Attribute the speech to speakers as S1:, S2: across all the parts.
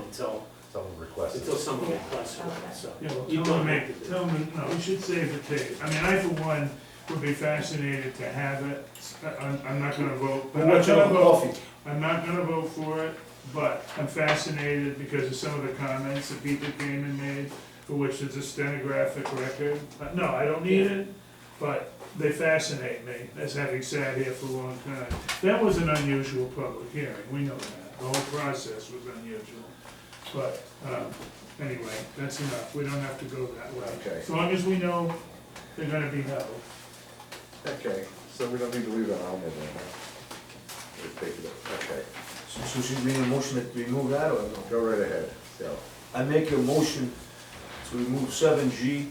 S1: until,
S2: Someone requested.
S1: until someone
S3: Yeah.
S1: requests one, so.
S4: Yeah, well,
S1: You
S4: tell
S1: don't
S4: them,
S1: have to
S4: make-
S1: do
S4: tell them, no, we should save the tape. I mean, I for one would be fascinated to have it. I'm, I'm not gonna vote, I'm not gonna vote, I'm not gonna vote for it, but I'm fascinated because of some of the comments that people came and made, for which there's a stenographic record. Uh, No, I don't need it, but they fascinate me, as having sat here for a long time. That was an unusual public hearing, we know that. The whole process was unusual. But, um, anyway, that's enough, we don't have to go that way.
S5: Okay.
S4: As long as we know they're gonna be held.
S5: Okay, so we don't need to leave that on there then, huh? Just take it up, okay.
S6: So so should we need a motion to remove that or no?
S5: Go right ahead, so.
S6: I make a motion to remove seven G,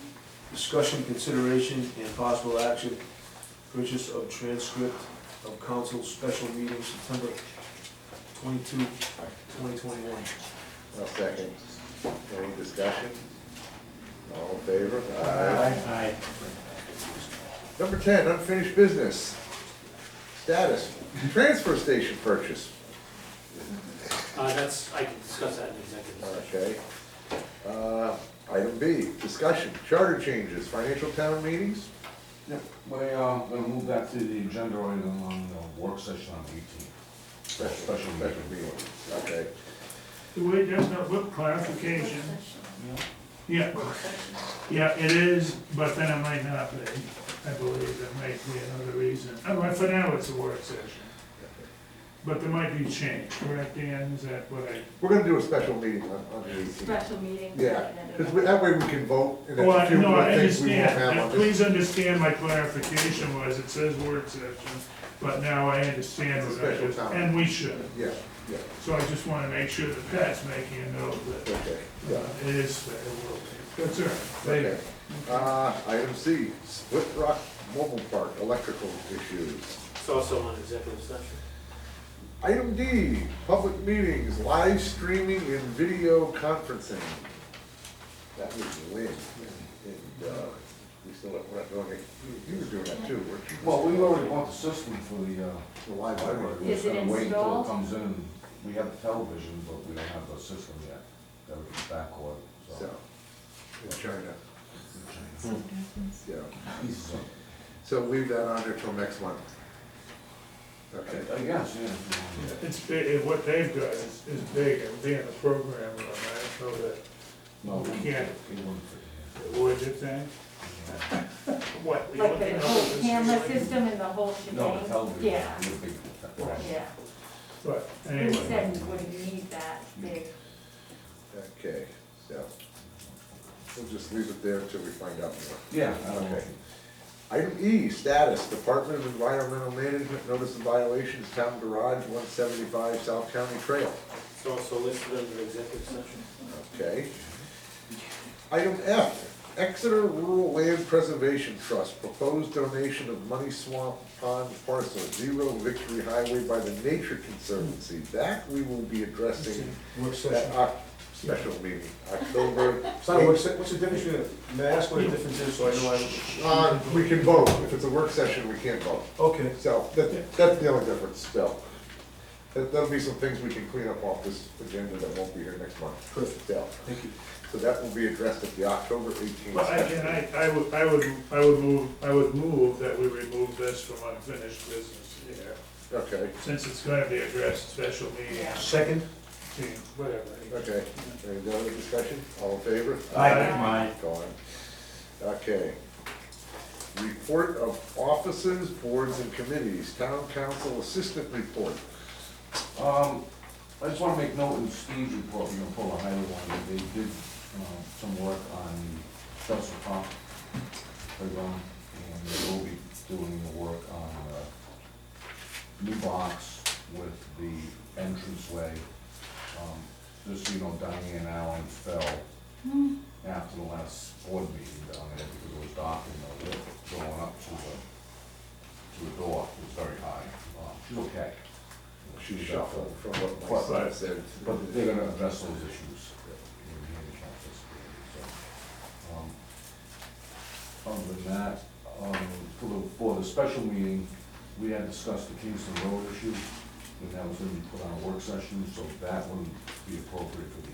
S6: discussion, consideration, and possible action, purchase of transcript of council special meeting September 22, 2021.
S5: I'll second. Any discussion? All in favor?
S1: Aye.
S5: Number ten, unfinished business. Status, transfer station purchase,
S1: Uh, that's, I can discuss that in executive session.
S5: okay. Uh, Item B, discussion, charter changes, financial town meetings,
S7: Yeah, we're gonna move that to the agenda item on the work session on the eighteenth. Special
S5: special
S7: meeting.
S5: meeting, okay.
S4: The way, that's not, what clarification? Yeah, yeah, it is, but then it might not be, I believe, that might be another reason. Oh, well, for now, it's a work session. But there might be change, correct, Dan, is that what I?
S5: We're gonna do a special meeting on, on the eighteenth.
S3: Special meeting.
S5: Yeah, because that way we can vote, and
S4: Well,
S5: if
S4: Oh, I-
S5: you
S4: no, I
S5: things we won't
S4: understand,
S5: have
S4: Now,
S5: on this.
S4: please understand my clarification was, it says work session, but now I understand
S5: It's a
S4: what I
S5: special
S4: just,
S5: time.
S4: and we should.
S5: Yeah, yeah,
S4: So I just wanna make sure that Pat's making a note that
S5: okay,
S4: uh,
S5: yeah,
S4: it is fair, will be. That's all right. They-
S5: okay. Uh, item C, Split Rock Mobile Park electrical issues.
S1: It's also on executive session.
S5: Item D, public meetings, live streaming and video conferencing. That was Lynn, and, uh, we still, have- we're not doing it, you were doing that too, weren't you?
S7: Well, we already bought the system for the, uh,
S5: The live
S7: library.
S5: library.
S7: We're just
S3: Is it
S7: gonna wait until
S3: installed?
S7: it comes in. We have the television, but we don't have the system yet. That would be backlog,
S5: So,
S7: so.
S5: in China, yeah.
S7: So,
S5: So leave that on there till next month.
S7: I
S5: Okay.
S7: I guess, yeah. if you want.
S4: It's, big- it- what they've got is, is big, and being a programmer, on that, so that,
S7: No, it wouldn't fit-
S4: Yeah.
S7: It wouldn't fit, yeah.
S4: what did you think? What? you
S3: Like
S4: want to
S3: the
S4: know
S3: whole
S4: this
S3: camera
S4: is-
S3: system and the whole
S7: No, the
S3: shebang.
S7: television.
S3: Yeah,
S7: would be-
S3: yeah.
S4: But,
S3: We
S4: anyway,
S3: said we wouldn't need that big.
S5: Okay, so, we'll just leave it there until we find out more.
S7: Yeah, I don't know.
S5: Okay. Item E, status, Department of Environmental Management, notice of violations, town garage, one seventy-five South County Trail.
S1: It's also listed under executive session.
S5: Okay. Item F, Exeter Rural Land Preservation Trust, proposed donation of Money Swamp Pond parcel, zero Victory Highway by the Nature Conservancy. That we will be addressing
S6: Work
S5: at
S6: session.
S5: our uh, special meeting, October.
S6: It's not a work se- what's the difference between, may I ask what the difference is, so I know I,
S5: Uh, we can vote, if it's a work session, we can't vote.
S6: okay.
S5: So, that, that's the only difference, so. There- There'll be some things we can clean up off this agenda that won't be here next month.
S6: Perfect.
S5: So,
S6: Thank you.
S5: so that will be addressed at the October eighteenth.
S4: but again, I, I would, I would, I would move, I would move that we remove this from unfinished business here,
S5: Okay,
S4: since it's gonna be addressed special meeting,
S3: Yeah.
S6: Second?
S4: team, whatever.
S5: okay. Any other discussion? All in favor? Gone. Okay. Report of offices, boards and committees, town council assistant report.
S7: Um, I just wanna make note in Steve's report, we're gonna pull a highlight one, that they did, uh, some work on Chelsea Pump playground, and they will be doing the work on, uh, new box with the entranceway. Um, Just, so you know, Diane Allen fell after the last board meeting down there, because it was dark and the lip going up to the, to the door was very high. Uh, She's okay.
S5: She
S7: She's
S5: shuffled from
S7: Quite
S5: what my son
S7: right.
S5: said.
S7: but they're gonna address those issues in the handicap facility, so. um, Other than that, um, for the, for the special meeting, we had discussed the Kingston Road issue, and that was gonna be put on a work session, so that wouldn't be appropriate for the